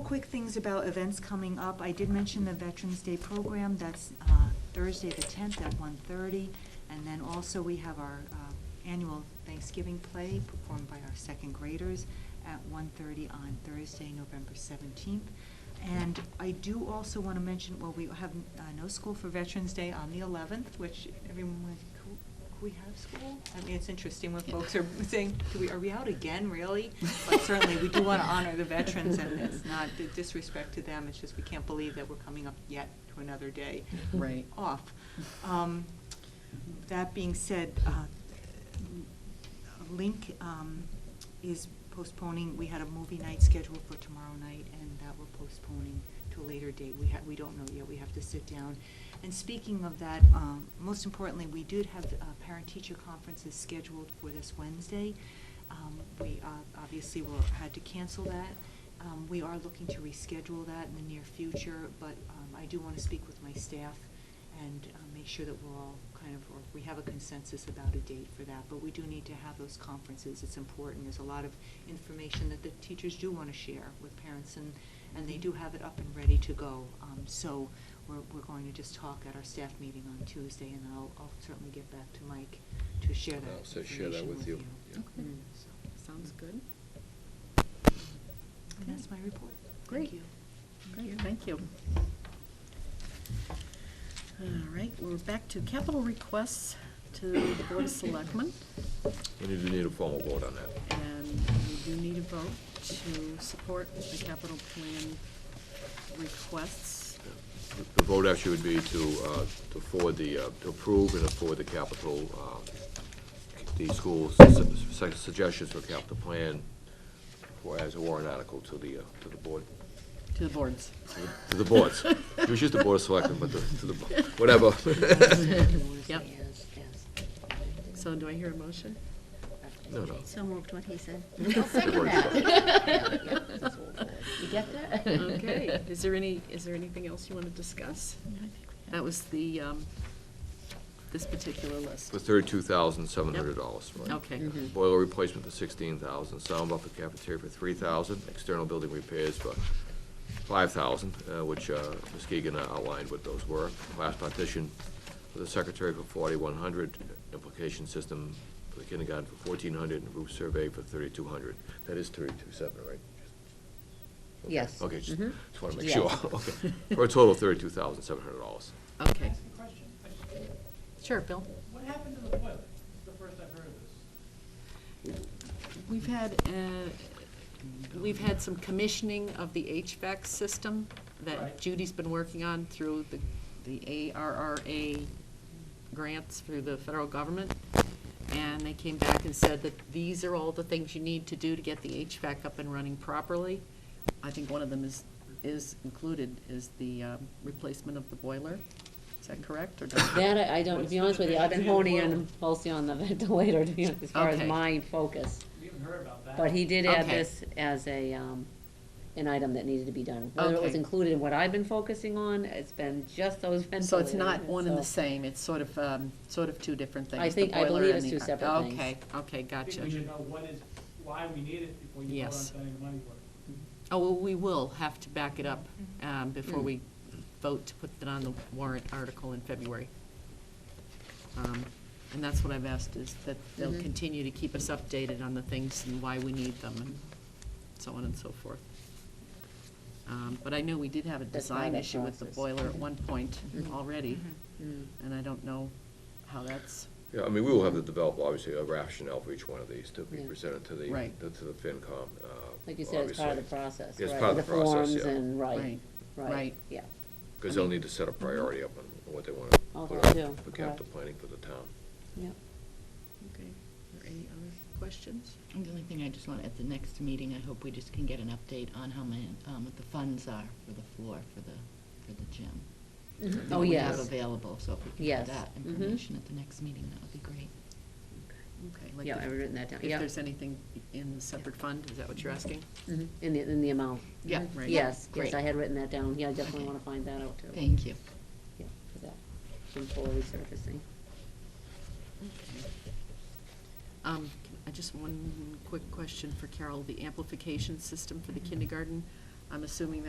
quick things about events coming up. I did mention the Veterans Day program, that's uh, Thursday the tenth at 1:30, And then also, we have our uh, annual Thanksgiving play performed by our second graders at 1:30 on Thursday, November seventeenth. And I do also want to mention, well, we have uh, no school for Veterans Day on the eleventh, which everyone went, "Cool, can we have school? I mean, it's interesting when folks are saying, do we, are we out again, really? But certainly, we do want to honor the veterans, and it's not the disrespect to them, it's just we can't believe that we're coming up yet to another day Right. off. Um, That being said, uh, Link um, is postponing, we had a movie night scheduled for tomorrow night, and that we're postponing to a later date. We ha we don't know yet, we have to sit down. And speaking of that, um, most importantly, we did have uh, parent-teacher conferences scheduled for this Wednesday. Um, We uh, obviously will, had to cancel that. Um, We are looking to reschedule that in the near future, but um, I do want to speak with my staff and uh, make sure that we're all kind of, or we have a consensus about a date for that. But we do need to have those conferences, it's important, there's a lot of information that the teachers do want to share with parents, and, and they do have it up and ready to go. Um, So we're, we're going to just talk at our staff meeting on Tuesday, and I'll, I'll certainly get back to Mike to share that I'll information say with you. share that with you, yeah. Okay. Mm, so. Sounds good. And that's my report. Thank Great. you. Great, thank you. All right, we're back to capital requests to the Board of Selectmen. We need, we need a formal vote on that. And we do need a vote to support the capital plan requests. The vote actually would be to, uh, to forward the, uh, to approve and afford the capital, uh, the school's su- su- suggestions for capital plan for, as a warrant article to the, uh, to the board, To the boards. to the- to the boards. It was just the board of selectmen, but the, to the, bo- whatever. Yep. Yes, yes. So do I hear a motion? No, no. So moved what he said. second You get that? Okay, is there any, is there anything else you want to discuss? That was the, um, this particular list. For thirty-two thousand, seven hundred dollars. Okay. Mm-hmm. Mhm. Boiler replacement for sixteen thousand, sound buffer cafeteria for three thousand, external building repairs for five thousand, uh, which, uh, Ms. Keegan outlined what those were. Class partition for the secretary for forty-one hundred, implication system for the kindergarten for fourteen hundred, and roof survey for thirty-two hundred. That is thirty-two seven, right? Okay. Yes. Mm-hmm. Okay, just, Mhm. just wanna make Yeah. sure, okay. For a total of thirty-two thousand, seven hundred dollars. Okay, Ask a question. Mm-hmm. sure, Bill. What happened to the boiler? It's the first I've heard of this. We've had, uh, we've had some commissioning of the HVAC system that Right. Judy's been working on through the, the ARRA grants through the federal government. And they came back and said that these are all the things you need to do to get the HVAC up and running properly. I think one of them is, is included, is the um, replacement of the boiler. Is that correct or not? That, I I don't, to be honest with you, I've been honing on, mostly on the ventilator, to be honest, as far as Okay. my focus. We haven't heard about that. But he did add Okay. this as a, um, an item that needed to be done. Whether it was Okay. included in what I've been focusing on, it's been just those ventilators. So it's not one and the so- same, it's sort of, um, sort of two different things. I the think- I boiler believe and it's the- two separate things. Okay, okay, I gotcha. think we should know what is, why we need it before you vote on Yes. spending the money for it. Oh, well, we will have to back it up um, before we vote to put it on the warrant article in February. Um, And that's what I've asked, is that they'll Mhm. continue to keep us updated on the things and why we need them and so on and so forth. Um, But I know we did have a That's part design of that issue with the process. boiler at one point Mhm. already, Mm-hmm. Mm. and I don't know how that's, Yeah, I mean, we will have to develop, obviously, a rationale for each one of these to be Yeah. presented to the, Right. to the FinCom, uh, Like you said, it's part of the obviously. process, right? It's part of the process, forms yeah. and, right, Right, right, right. yeah. Because I they'll mean- need to set a priority up on what they want to Oh, put they out do, for correct. capital planning for the town. Yep. Mm-hmm. okay, are there any other questions? And The only thing I just want, at the next meeting, I hope we just can get an update on how many, um, what the funds are for the floor, for the, for the gym. Oh, That we have yes. Available, so if we can Yes. get that Mhm. information at the next meeting, that would be great. Okay, like Yeah, if- I've written that down, If yeah. there's anything in the separate fund, is that what you're asking? Mhm. In the, in the amount. Yeah, Mhm. right. Yes, yes, Great. I had written that down, yeah, I definitely Okay. wanna find that out too. Thank you. Yeah, for that, some full resurfacing. Um, Mm-hmm. I just, one quick question for Carol, the amplification system for the kindergarten, I'm assuming that